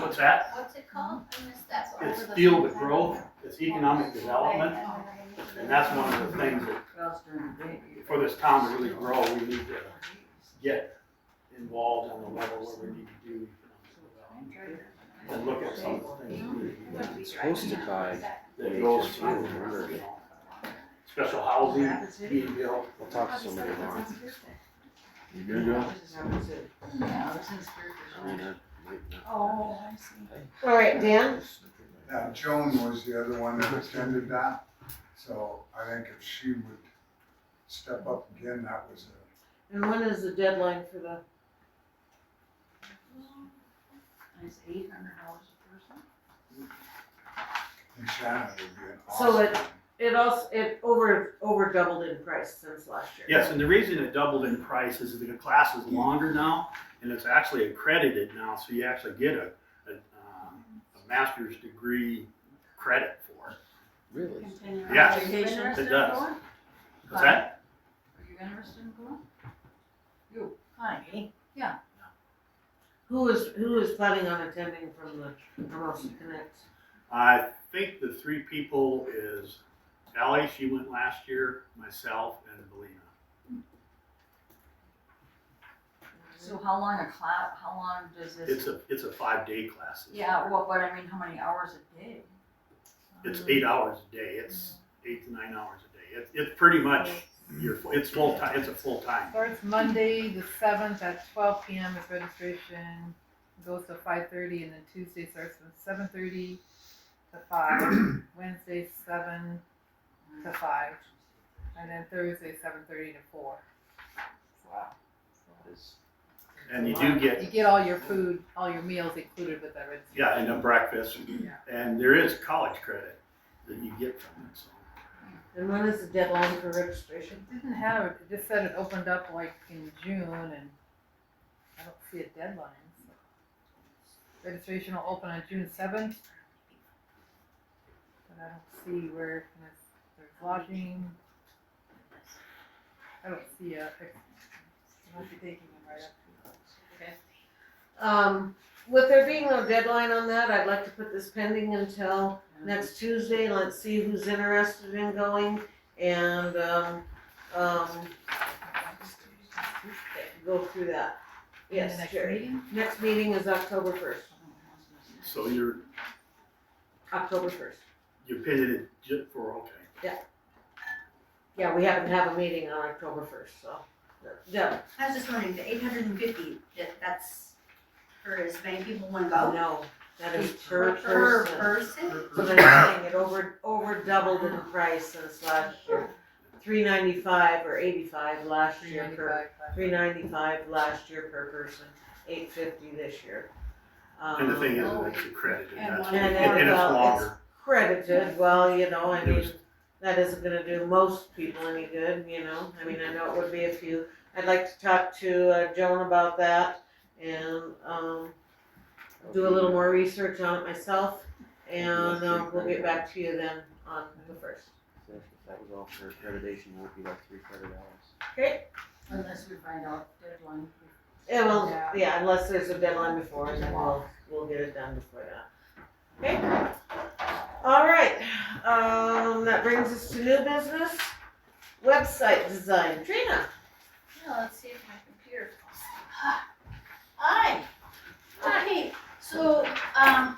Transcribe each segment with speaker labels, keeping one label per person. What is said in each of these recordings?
Speaker 1: What's that?
Speaker 2: What's it called? I missed that one.
Speaker 1: It's deal with growth, it's economic development, and that's one of the things that, for this town to really grow, we need to get involved on the level where we need to do economic development. And look at some of the things we need to do
Speaker 3: It's supposed to tie,
Speaker 1: that goes through, you know, special housing being built.
Speaker 3: I'll talk to somebody tomorrow. You
Speaker 4: There you go.
Speaker 3: I mean, I might not.
Speaker 5: Oh, I see.
Speaker 6: All right, Dan?
Speaker 7: Yeah, Joan was the other one that attended that, so I think if she would step up again, that was a,
Speaker 6: And when is the deadline for the,
Speaker 5: It's eight hundred dollars a person.
Speaker 7: and Shannon would be an awesome.
Speaker 6: So it- it also, it over, over doubled in price since last year?
Speaker 1: Yes, and the reason it doubled in price is that the class is longer now, and it's actually accredited now, so you actually get a, a, um, a master's degree credit for it.
Speaker 3: Really?
Speaker 5: Continuing
Speaker 1: Yes,
Speaker 5: education.
Speaker 1: it does. What's that?
Speaker 5: Are you interested in going? You, Connie? Yeah.
Speaker 6: Who is, who is planning on attending from the Hermosa Connect?
Speaker 1: I think the three people is Ellie, she went last year, myself, and Belina.
Speaker 5: So how long a class, how long does this?
Speaker 1: It's a, it's a five-day class.
Speaker 5: Yeah, well, but I mean, how many hours a day?
Speaker 1: It's eight hours a day, it's
Speaker 5: Mm-hmm.
Speaker 1: eight to nine hours a day, it's, it's pretty much, your fu- it's full-time, it's a full-time.
Speaker 8: Starts Monday, the seventh at twelve P M is registration, goes to five thirty, and then Tuesday starts from seven thirty to five, Wednesday seven to five, and then Thursday seven thirty to four.
Speaker 3: Wow. That is,
Speaker 1: And you do get
Speaker 8: You get all your food, all your meals included with that registration.
Speaker 1: Yeah, and a breakfast, and there is college credit that you get from it, so.
Speaker 6: And when is the deadline for registration?
Speaker 8: It Didn't have, it It just said it opened up like in June and I don't see a deadline. so. Registration will open on June seventh. But I don't see where, there's, there's lodging. I don't see a, I must be taking them right up.
Speaker 6: Um, with there being no deadline on that, I'd like to put this pending until next Tuesday. Let's see who's interested in going and, um, um, go through that.
Speaker 8: In the
Speaker 6: Yes,
Speaker 8: next
Speaker 6: Jerry.
Speaker 8: meeting?
Speaker 6: Next meeting is October first,
Speaker 1: So you're,
Speaker 6: October first.
Speaker 1: you pitted it ju- for, okay.
Speaker 6: Yeah, we happen to have a meeting on October first, so, no,
Speaker 9: I was just wondering, the eight hundred and fifty, that, that's for as many people want to go?
Speaker 6: no, Oh, that is
Speaker 9: Just
Speaker 6: per
Speaker 9: Per
Speaker 6: person.
Speaker 9: person?
Speaker 6: So they're saying it over, over doubled in price since last year. Three ninety-five or eighty-five last
Speaker 8: Three
Speaker 6: year per
Speaker 8: ninety-five,
Speaker 6: Three ninety-five last year per person, eight fifty this year.
Speaker 1: And the thing is,
Speaker 6: Um,
Speaker 1: it's accredited,
Speaker 5: And
Speaker 1: that's,
Speaker 5: one-
Speaker 1: and and it's
Speaker 6: Well, it's-
Speaker 1: longer.
Speaker 6: Credited, well, you know, I
Speaker 1: It
Speaker 6: mean,
Speaker 1: was-
Speaker 6: that isn't gonna do most people any good, you know, I mean, I know it would be a few. I'd like to talk to uh, Joan about that and, um, do a little more research on it myself. And, um, we'll get back to you then on the first.
Speaker 3: so if that was all for accreditation, it would be like three credit hours.
Speaker 5: Unless we find out deadline.
Speaker 6: Yeah, well,
Speaker 8: Yeah.
Speaker 6: yeah, unless there's a deadline before, and then we'll, we'll get it done before that. Okay? All right, um, that brings us to new business, website design, Trina.
Speaker 2: Now, let's see if my computer falls. Hi. Hi. So, um,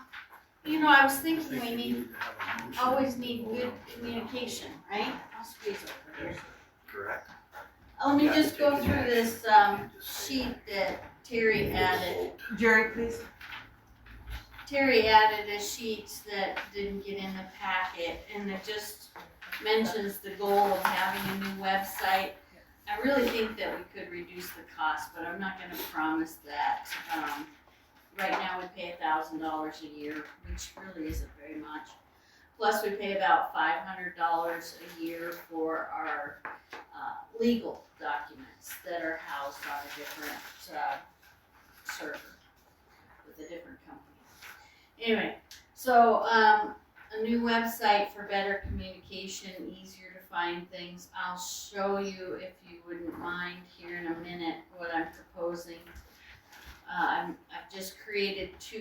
Speaker 2: you know, I was thinking we need,
Speaker 1: to have a motion.
Speaker 2: always need good communication, right? I'll squeeze over here.
Speaker 1: Correct.
Speaker 2: Let me just go through this, um, sheet that Terry added.
Speaker 6: Jerry, please.
Speaker 2: Terry added a sheet that didn't get in the packet, and it just mentions the goal of having a new website. I really think that we could reduce the cost, but I'm not gonna promise that. Um, right now, we pay a thousand dollars a year, which really isn't very much. Plus, we pay about five hundred dollars a year for our, uh, legal documents that are housed on a different, uh, server with a different company. Anyway, so um, a new website for better communication, easier to find things. I'll show you if you wouldn't mind here in a minute what I'm proposing. Uh, I'm, I've just created two